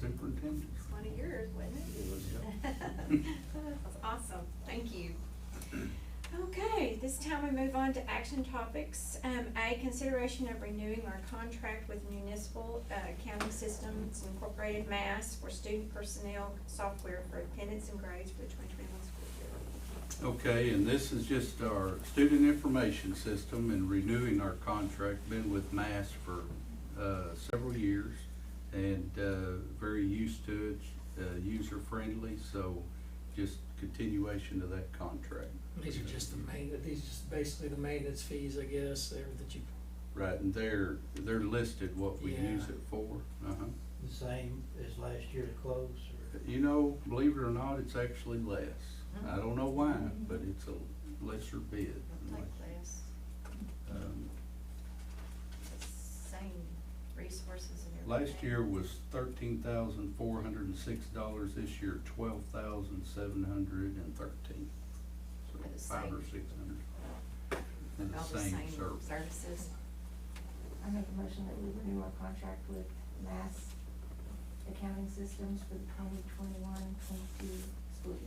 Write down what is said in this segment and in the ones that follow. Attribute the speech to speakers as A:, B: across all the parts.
A: Superintendent?
B: It's one of yours, wasn't it?
A: It was, yeah.
B: That's awesome, thank you. Okay, this time we move on to action topics. Um, A, consideration of renewing our contract with Municipal uh, Accounting Systems Incorporated Mass for student personnel software for attendance and grades for the twenty twenty-one school year.
A: Okay, and this is just our student information system and renewing our contract, been with Mass for, uh, several years and, uh, very used to it, uh, user friendly, so just continuation of that contract.
C: These are just the main, these are just basically the maintenance fees, I guess, there that you,
A: Right, and they're, they're listed what we
C: Yeah.
A: use it for, uh-huh.
D: The same as last year to close, or
A: You know, believe it or not, it's actually less.
C: Mm-hmm.
A: I don't know why, but it's a lesser bid.
E: Like this,
A: Um,
E: the same resources and everything.
A: Last year was thirteen thousand four hundred and six dollars, this year twelve thousand seven hundred and thirteen. So
E: For the
A: five or
E: same-
A: six hundred.
E: All
A: And the same service.
E: services.
F: I make a motion that we renew our contract with Mass Accounting Systems for the 2021-22 school year.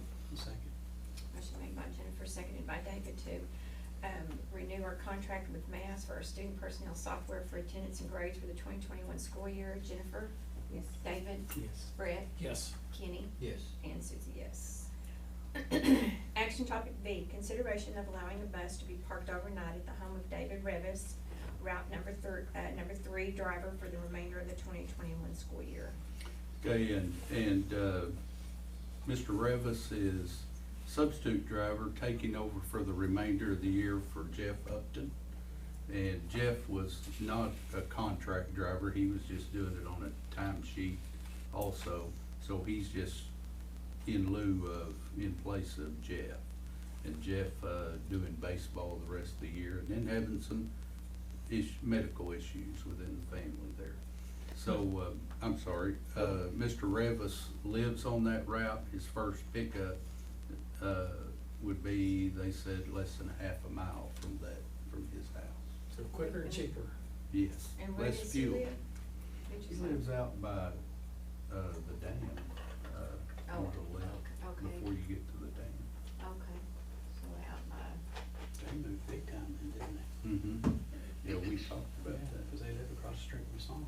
B: Motion made by Jennifer, seconded by David to um, renew our contract with Mass for our student personnel software for attendance and grades for the twenty twenty-one school year. Jennifer,
F: Yes.
B: David,
G: Yes.
B: Brett,
C: yes,
B: Kenny,
D: yes,
B: and Susie, yes. Action topic B, consideration of allowing a bus to be parked overnight at the home of David Revis, route number thir- uh, number three driver for the remainder of the twenty twenty-one school year.
A: Okay, and, and, uh, Mr. Revis is substitute driver, taking over for the remainder of the year for Jeff Upton. And Jeff was not a contract driver, he was just doing it on a time sheet also, so he's just in lieu of, in place of Jeff. And Jeff, uh, doing baseball the rest of the year, and then having some ish, medical issues within the family there. So, uh, I'm sorry, uh, Mr. Revis lives on that route, his first pickup, uh, would be, they said, less than a half a mile from that, from his house.
C: so quicker and cheaper.
A: Yes,
B: And where
A: less
B: does he
A: fuel.
B: live? Did
A: He
B: you say?
A: lives out by, uh, the dam, uh, on
E: Oh,
A: the left,
E: okay.
A: before you get to the dam.
E: Okay, so out by,
G: They moved big time then, didn't they?
A: Mm-hmm, yeah, we talked about
G: Yeah,
A: that.
G: because they live across the street from
D: Oh,
G: Sonic.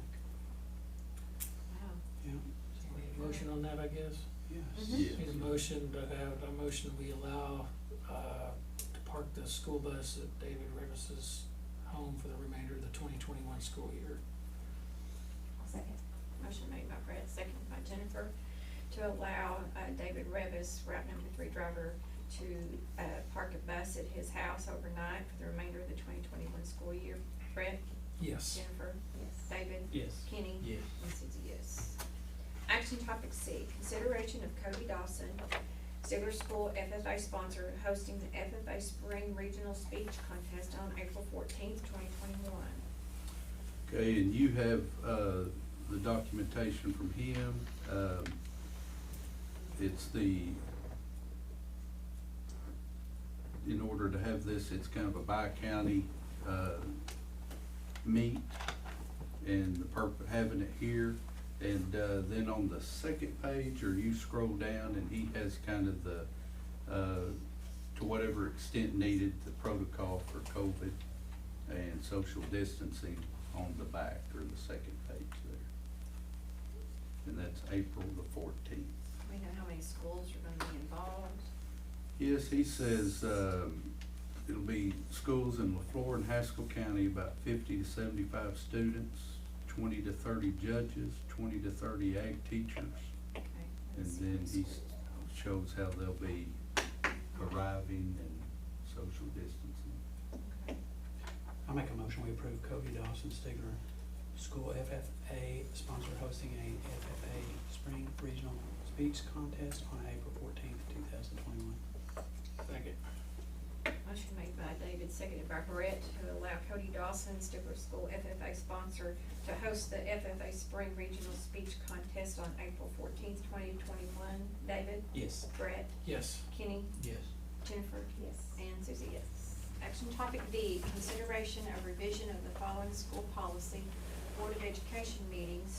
E: wow.
G: Yeah,
C: So we need a motion on that, I guess.
G: yes.
E: Mhm.
A: Yes.
C: Need a motion to have, a motion we allow, uh, to park the school bus at David Revis's home for the remainder of the twenty twenty-one school year.
F: I'll second.
B: Motion made by Brett, seconded by Jennifer, to allow uh, David Revis, route number three driver, to uh, park a bus at his house overnight for the remainder of the twenty twenty-one school year. Brett,
C: Yes,
B: Jennifer,
F: Yes.
B: David,
G: Yes.
B: Kenny,
G: Yes.
B: and Susie, yes. Action topic C, consideration of Cody Dawson, Steeler School FFA sponsor, hosting the FFA Spring Regional Speech Contest on April fourteenth, twenty twenty-one.
A: Okay, and you have, uh, the documentation from him, um, it's the, in order to have this, it's kind of a bi-county, uh, meet, and the purp, having it here, and, uh, then on the second page, or you scroll down, and he has kind of the, uh, to whatever extent needed, the protocol for COVID and social distancing on the back or the second page there. And that's April the fourteenth.
B: We know how many schools are gonna be involved.
A: Yes, he says, um, it'll be schools in LaFleur and Haskell County, about fifty to seventy-five students, twenty to thirty judges, twenty to thirty ag teachers.
B: Okay,
A: And
B: let's see
A: then
B: what
A: he
B: schools are involved.
A: shows how they'll be arriving and social distancing.
G: I make a motion, we approve Cody Dawson Stigler School FFA sponsor hosting a FFA Spring Regional Speech Contest on April fourteenth, two thousand twenty-one.
C: second.
B: Motion made by David, seconded by Brett, to allow Cody Dawson, Stifler School FFA sponsor, to host the FFA Spring Regional Speech Contest on April fourteenth, twenty twenty-one. David,
G: Yes.
B: Brett,
C: Yes,
B: Kenny,
G: Yes.
B: Jennifer,
F: Yes.
B: and Susie, yes. Action topic D, consideration of revision of the following school policy, Board of Education meetings